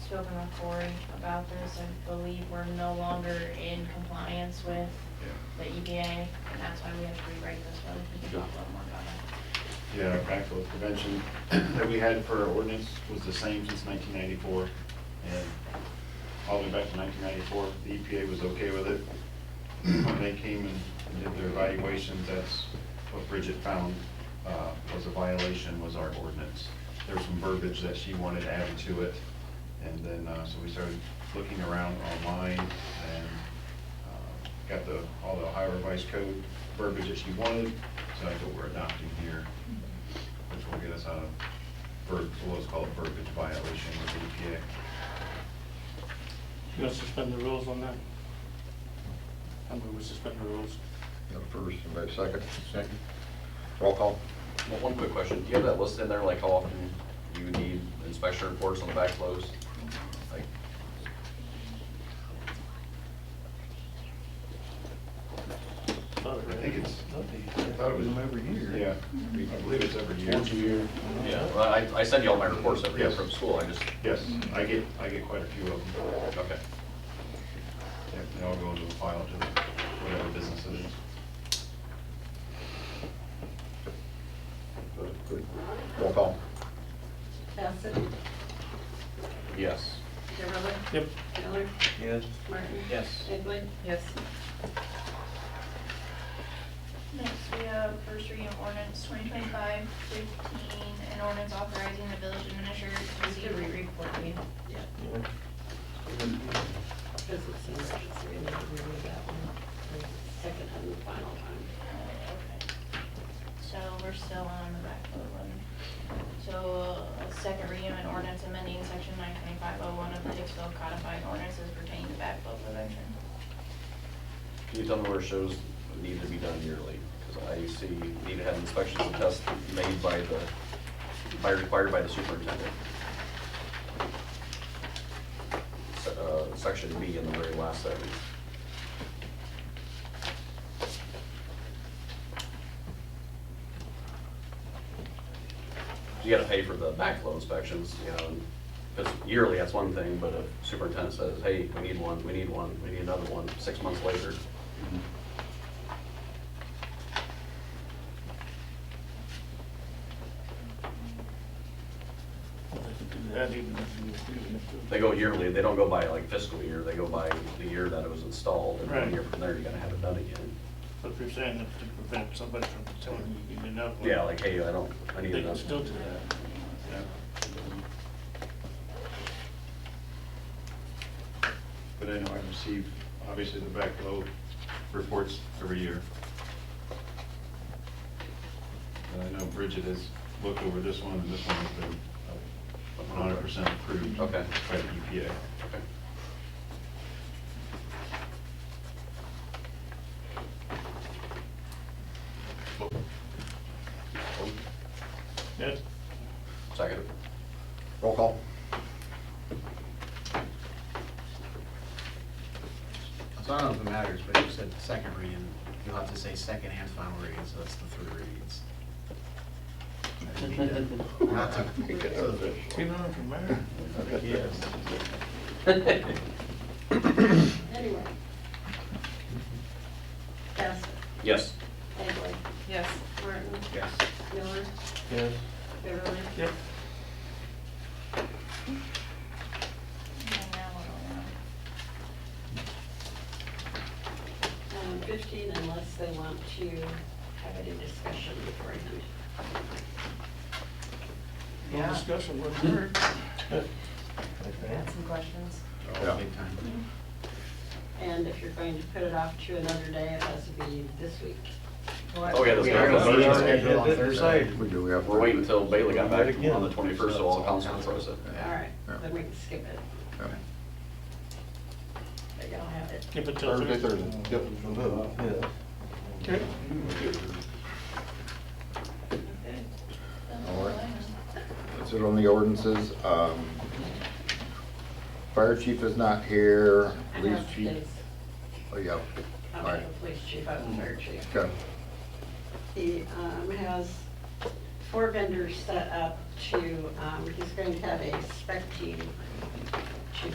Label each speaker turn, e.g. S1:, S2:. S1: spoken with Corey about this. I believe we're no longer in compliance with the EPA, and that's why we have to rewrite this one. You can talk a little more about that.
S2: Yeah, backflow prevention that we had for our ordinance was the same since nineteen ninety-four. And all the way back to nineteen ninety-four, the EPA was okay with it. When they came and did their evaluations, that's what Bridget found uh, was a violation, was our ordinance. There was some verbiage that she wanted added to it. And then, uh, so we started looking around online and uh, got the, all the Ohio Revised Code verbiage that she wanted, so that's what we're adopting here, which will get us out of verb, what's called verbiage violation with E EPA.
S3: You want to suspend the rules on that? I move we suspend the rules.
S4: Got a first, anybody second?
S5: Second.
S4: Roll call.
S6: Well, One quick question, do you have that listed in there, like how often you need inspection reports on the backflows? Like,
S2: I think it's,
S5: I
S2: thought it was
S5: every
S2: yeah, I believe it's every year.
S5: year.
S6: yeah, well, I, I send you all my reports every year
S2: Yes.
S6: from school, I just,
S2: Yes, I get, I get quite a few of them.
S6: okay.
S2: Yep, They all go into a file to the, whatever business it is.
S4: Good. Roll call.
S7: Bassett?
S6: Yes.
S7: Deverlin,
S3: Yep,
S7: Miller?
S5: Yes.
S7: Martin?
S5: Yes.
S7: Egley? Yes.
S1: Next, we have first reading of ordinance 2025-15, an ordinance authorizing the village administrator to
S7: Just a
S1: receive.
S7: re-report me. Yeah. Because it seems like it's really, really that one. Second and final time.
S1: So we're still on the backload one. So uh, second reading and ordinance amending section nine twenty-five oh one of the Hicksville codified ordinances pertaining to backflow prevention.
S6: Can you tell me where it shows need to be done yearly? Because I see need to have inspections and tests made by the, by, required by the superintendent. Se- Uh, section B in the very last sentence. You gotta pay for the backflow inspections, you know, because yearly, that's one thing, but if superintendent says, hey, we need one, we need one, we need another one, six months later,
S3: I could do that even if you- even if you-
S6: They go yearly, they don't go by like fiscal year, they go by the year that it was installed, and
S3: Right.
S6: one year from there, you're gonna have it done again.
S3: But if you're saying that to prevent somebody from telling you you need another one.
S6: Yeah, like, hey, I don't, I need
S3: They can
S6: another.
S3: still do that.
S2: But I know I receive, obviously, the backflow reports every year. And I know Bridget has looked over this one, and this one has been one hundred percent approved.
S6: Okay.
S2: By the E EPA.
S6: Okay.
S3: Yes,
S6: Second.
S4: Roll call.
S5: I don't know if it matters, but you said second reading, you'll have to say second and final reading, so that's the three readings. Not to-
S3: even if you're married.
S5: Yes.
S7: Anyway. Bassett?
S6: Yes.
S7: Egley? Yes. Martin?
S6: Yes.
S7: Miller?
S5: Yes.
S7: Beverly?
S3: Yep,
S1: And now we're on.
S7: Um, Fifteen unless they want to have any discussion beforehand.
S3: no discussion, wouldn't hurt.
S8: some questions?
S4: Yeah.
S5: Oh, big time.
S7: And if you're going to put it off to another day, it has to be this week.
S6: Oh, yeah, that's
S5: We are gonna- we are
S6: good.
S5: gonna
S4: Scheduled on
S5: hit it
S4: Thursday.
S5: Thursday.
S4: We do, we have.
S6: We're waiting until Bailey got back
S5: Again.
S6: on the twenty-first, so all council throws it.
S7: All right,
S4: Yeah.
S7: then we can skip it,
S4: Yeah.
S7: but y'all have it.
S3: Keep it till Thursday.
S5: Yep. Yeah.
S3: Okay.
S4: All right. That's it on the ordinances. Um, Fire chief is not here,
S7: I
S4: police
S7: have
S4: chief,
S7: his-
S4: oh, yeah,
S7: I'm
S4: All
S7: not
S4: right.
S7: the police chief, I'm the fire chief.
S4: okay.
S7: He um, has four vendors set up to, um, he's going to have a spec team